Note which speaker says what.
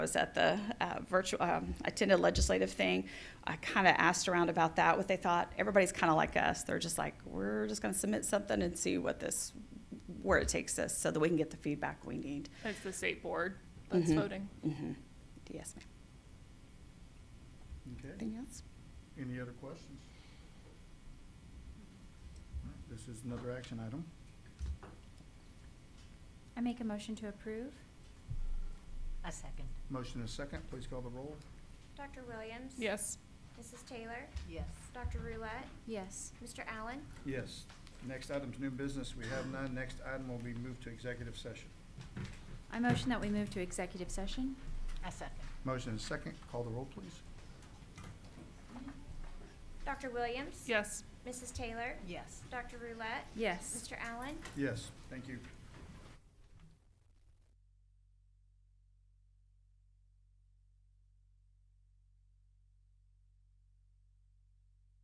Speaker 1: I was at the uh, virtual, um, attended a legislative thing. I kind of asked around about that, what they thought. Everybody's kind of like us. They're just like, we're just going to submit something and see what this, where it takes us so that we can get the feedback we need.
Speaker 2: That's the state board that's
Speaker 1: Mhm.
Speaker 2: voting.
Speaker 1: hmm Yes, ma'am.
Speaker 3: Okay,
Speaker 1: Anything else?
Speaker 3: any other questions? All right, This is another action item.
Speaker 4: I make a motion to approve.
Speaker 5: A second.
Speaker 3: Motion is second, please call the roll.
Speaker 6: Dr. Williams?
Speaker 2: Yes.
Speaker 6: Mrs. Taylor?
Speaker 5: Yes.
Speaker 6: Dr. Roulette?
Speaker 4: Yes.
Speaker 6: Mr. Allen?
Speaker 3: Yes. Next item's new business, we have none. Next item will be moved to executive session.
Speaker 4: I motion that we move to executive session.
Speaker 5: A second.
Speaker 3: Motion is second, call the roll, please.
Speaker 6: Dr. Williams?
Speaker 2: Yes.
Speaker 6: Mrs. Taylor?
Speaker 5: Yes.
Speaker 6: Dr. Roulette?
Speaker 4: Yes.
Speaker 6: Mr. Allen?
Speaker 3: Yes, thank you.